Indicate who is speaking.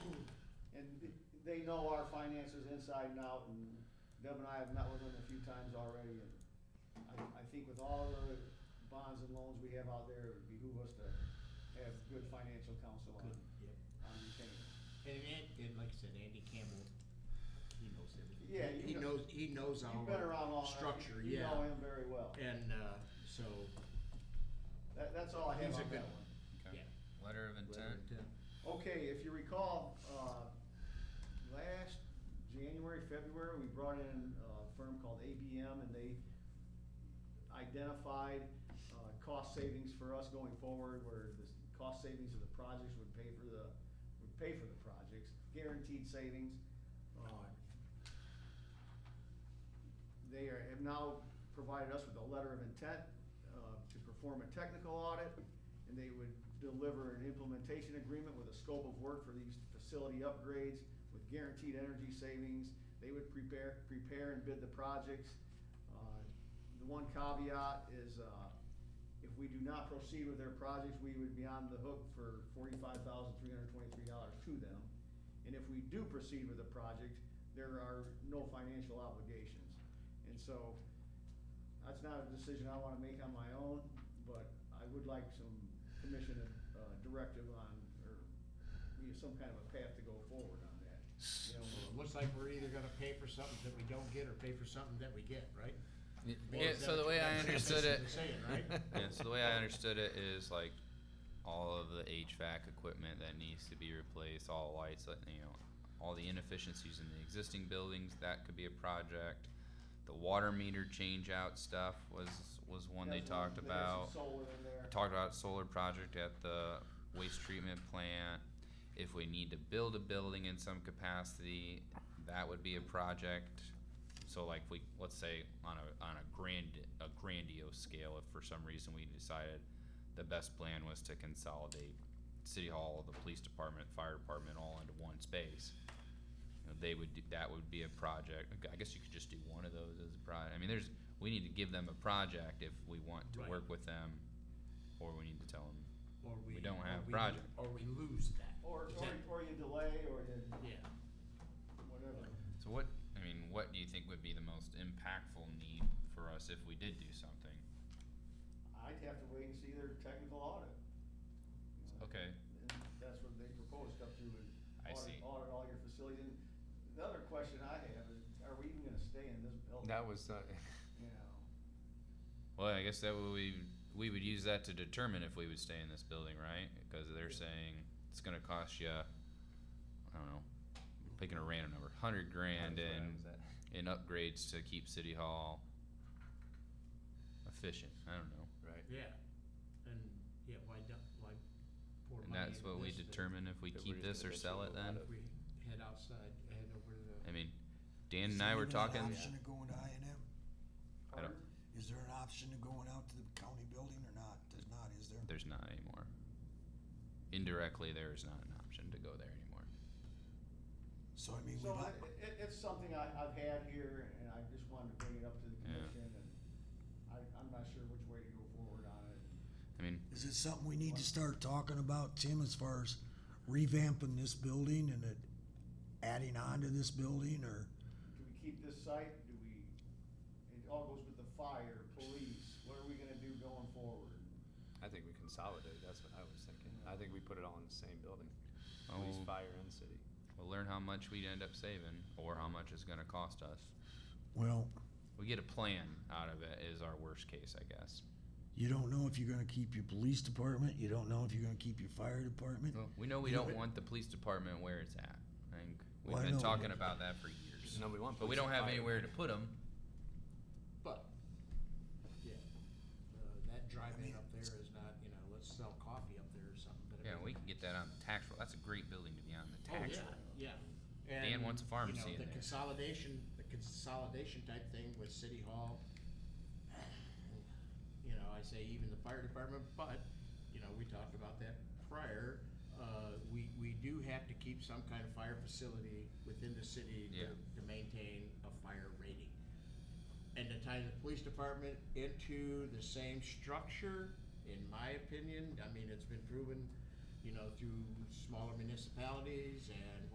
Speaker 1: they know our finances inside and out, and Deb and I have met with them a few times already, and I, I think with all the bonds and loans we have out there, it would behoove us to have good financial counsel on,
Speaker 2: Yep.
Speaker 1: on retaining.
Speaker 2: And, and, and like I said, Andy Campbell, he knows everything.
Speaker 1: Yeah, you
Speaker 2: He
Speaker 1: know-
Speaker 2: knows, he knows
Speaker 1: You've been around
Speaker 2: our
Speaker 1: long enough,
Speaker 2: structure,
Speaker 1: you- You
Speaker 2: yeah.
Speaker 1: know him very well.
Speaker 2: And, uh, so,
Speaker 1: That, that's all I have
Speaker 2: He's a
Speaker 1: on that
Speaker 2: good-
Speaker 1: one.
Speaker 2: yeah. uh,
Speaker 3: Okay. Letter of intent.
Speaker 1: Okay, if you recall, uh, last January, February, we brought in a firm called ABM and they identified, uh, cost savings for us going forward where the s- cost savings of the projects would pay for the, would pay for the projects, guaranteed savings. Uh, They are, have now provided us with a letter of intent, uh, to perform a technical audit and they would deliver an implementation agreement with a scope of work for these facility upgrades with guaranteed energy savings. They would prepare, prepare and bid the projects. Uh, The one caveat is, uh, if we do not proceed with their projects, we would be on the hook for forty-five thousand, three hundred twenty-three dollars to them. And if we do proceed with the project, there are no financial obligations. And so, that's not a decision I wanna make on my own, but I would like some commission, uh, directive on, or, you know, some kind of a path to go forward on that. You know,
Speaker 2: It Looks like we're either gonna pay for something that we don't get or pay for something that we get, right?
Speaker 3: Y-
Speaker 2: Well,
Speaker 3: Yeah,
Speaker 2: is
Speaker 3: so
Speaker 2: that
Speaker 3: the
Speaker 2: what
Speaker 3: way
Speaker 2: you-
Speaker 3: I
Speaker 2: that's
Speaker 3: understood it,
Speaker 2: basically saying, right?
Speaker 3: yeah, so the way I understood it is like all of the HVAC equipment that needs to be replaced, all lights, like, you know, all the inefficiencies in the existing buildings, that could be a project. The water meter change out stuff was, was one they
Speaker 1: there's
Speaker 3: talked
Speaker 1: there's
Speaker 3: about.
Speaker 1: some Solar in there.
Speaker 3: I talked about solar project at the waste treatment plant. If we need to build a building in some capacity, that would be a project. So like we, let's say on a, on a grand, a grandiose scale, if for some reason we decided the best plan was to consolidate city hall, the police department, fire department, all into one space. you know, They would, do- that would be a project. I guess you could just do one of those as a project. I mean, there's, we need to give them a project if we want to
Speaker 2: Right.
Speaker 3: work with them or we need to tell them.
Speaker 2: Or
Speaker 3: We don't
Speaker 2: or
Speaker 3: have
Speaker 2: we-
Speaker 3: project.
Speaker 2: Or we lose that.
Speaker 1: Or,
Speaker 2: Is
Speaker 1: or,
Speaker 2: that-
Speaker 1: or you delay, or you,
Speaker 2: Yeah.
Speaker 1: whatever.
Speaker 3: So what, I mean, what do you think would be the most impactful need for us if we did do something?
Speaker 1: I'd have to wait and see their technical audit. You know,
Speaker 3: Okay,
Speaker 1: and That's what they proposed up to, and
Speaker 3: I
Speaker 1: audit,
Speaker 3: see.
Speaker 1: audit all your facilities. And the other question I have is, are we even gonna stay in this
Speaker 4: Oh.
Speaker 1: building?
Speaker 3: That was,
Speaker 1: You know,
Speaker 3: well, I guess that would, we, we would use that to determine if we would stay in this building, right? Because they're saying it's gonna cost you, I don't know, picking a random number, hundred grand in, in upgrades to keep city hall efficient, I don't know.
Speaker 4: Right.
Speaker 2: Yeah, and, yeah, why don't, why pour money into this?
Speaker 3: And that's what we
Speaker 2: that
Speaker 3: determine if we
Speaker 4: that we're
Speaker 3: keep
Speaker 4: just
Speaker 3: this
Speaker 4: gonna
Speaker 3: or
Speaker 4: make
Speaker 3: sell it
Speaker 4: something
Speaker 3: then?
Speaker 4: out of.
Speaker 2: We head outside, head over to the.
Speaker 3: I mean, Dan and I were talking,
Speaker 5: Is there even an option of going to I and M?
Speaker 3: I don't-
Speaker 1: or-
Speaker 5: Is there an option of going out to the county building or not? There's not, is there?
Speaker 3: there's not anymore. Indirectly, there is not an option to go there anymore.
Speaker 5: So I mean, we
Speaker 1: So
Speaker 5: might,
Speaker 1: it, it, it's something I, I've had here, and I just wanted to bring it up to the
Speaker 3: Yeah.
Speaker 1: commission, and I, I'm not sure which way to go forward on it.
Speaker 3: I mean,
Speaker 5: is it something we need to start talking about, Tim, as far as revamping this building and it adding on to this building or?
Speaker 1: Do we keep this site, do we, it all goes with the fire, police, what are we gonna do going forward?
Speaker 4: I think we consolidate, that's what I was thinking. I think we put it all in the same building, police,
Speaker 3: we'll,
Speaker 4: fire and city.
Speaker 3: we'll learn how much we end up saving or how much it's going to cost us.
Speaker 5: Well,
Speaker 3: We get a plan out of it is our worst case, I guess.
Speaker 5: you don't know if you're gonna keep your police department, you don't know if you're gonna keep your fire department.
Speaker 3: We know we
Speaker 5: Yeah,
Speaker 3: don't
Speaker 5: but-
Speaker 3: want the police department where it's at. I think we've
Speaker 5: Well, I
Speaker 3: been
Speaker 5: know,
Speaker 3: talking
Speaker 5: but-
Speaker 3: about that for years.
Speaker 4: No, we want
Speaker 3: But we
Speaker 4: police
Speaker 3: don't
Speaker 4: and
Speaker 3: have
Speaker 4: fire.
Speaker 3: anywhere to put them.
Speaker 2: But, yeah, uh, that drive-in up there is not, you know, let's sell coffee up there or something, but. I
Speaker 3: Yeah,
Speaker 2: mean-
Speaker 3: we can get that on the tax roll. That's a great building to be on the
Speaker 2: Oh,
Speaker 3: tax
Speaker 2: yeah,
Speaker 3: roll.
Speaker 2: yeah.
Speaker 3: Dan
Speaker 2: And,
Speaker 3: wants a
Speaker 2: you know,
Speaker 3: pharmacy in
Speaker 2: The
Speaker 3: there.
Speaker 2: consolidation, the consolidation type thing with city hall. You know, I say even the fire department, but, you know, we talked about that prior. Uh, we, we do have to keep some kind of fire facility within the city
Speaker 3: Yeah.
Speaker 2: to, to maintain a fire rating. And to tie the police department into the same structure, in my opinion, I mean, it's been proven, you know, through smaller municipalities and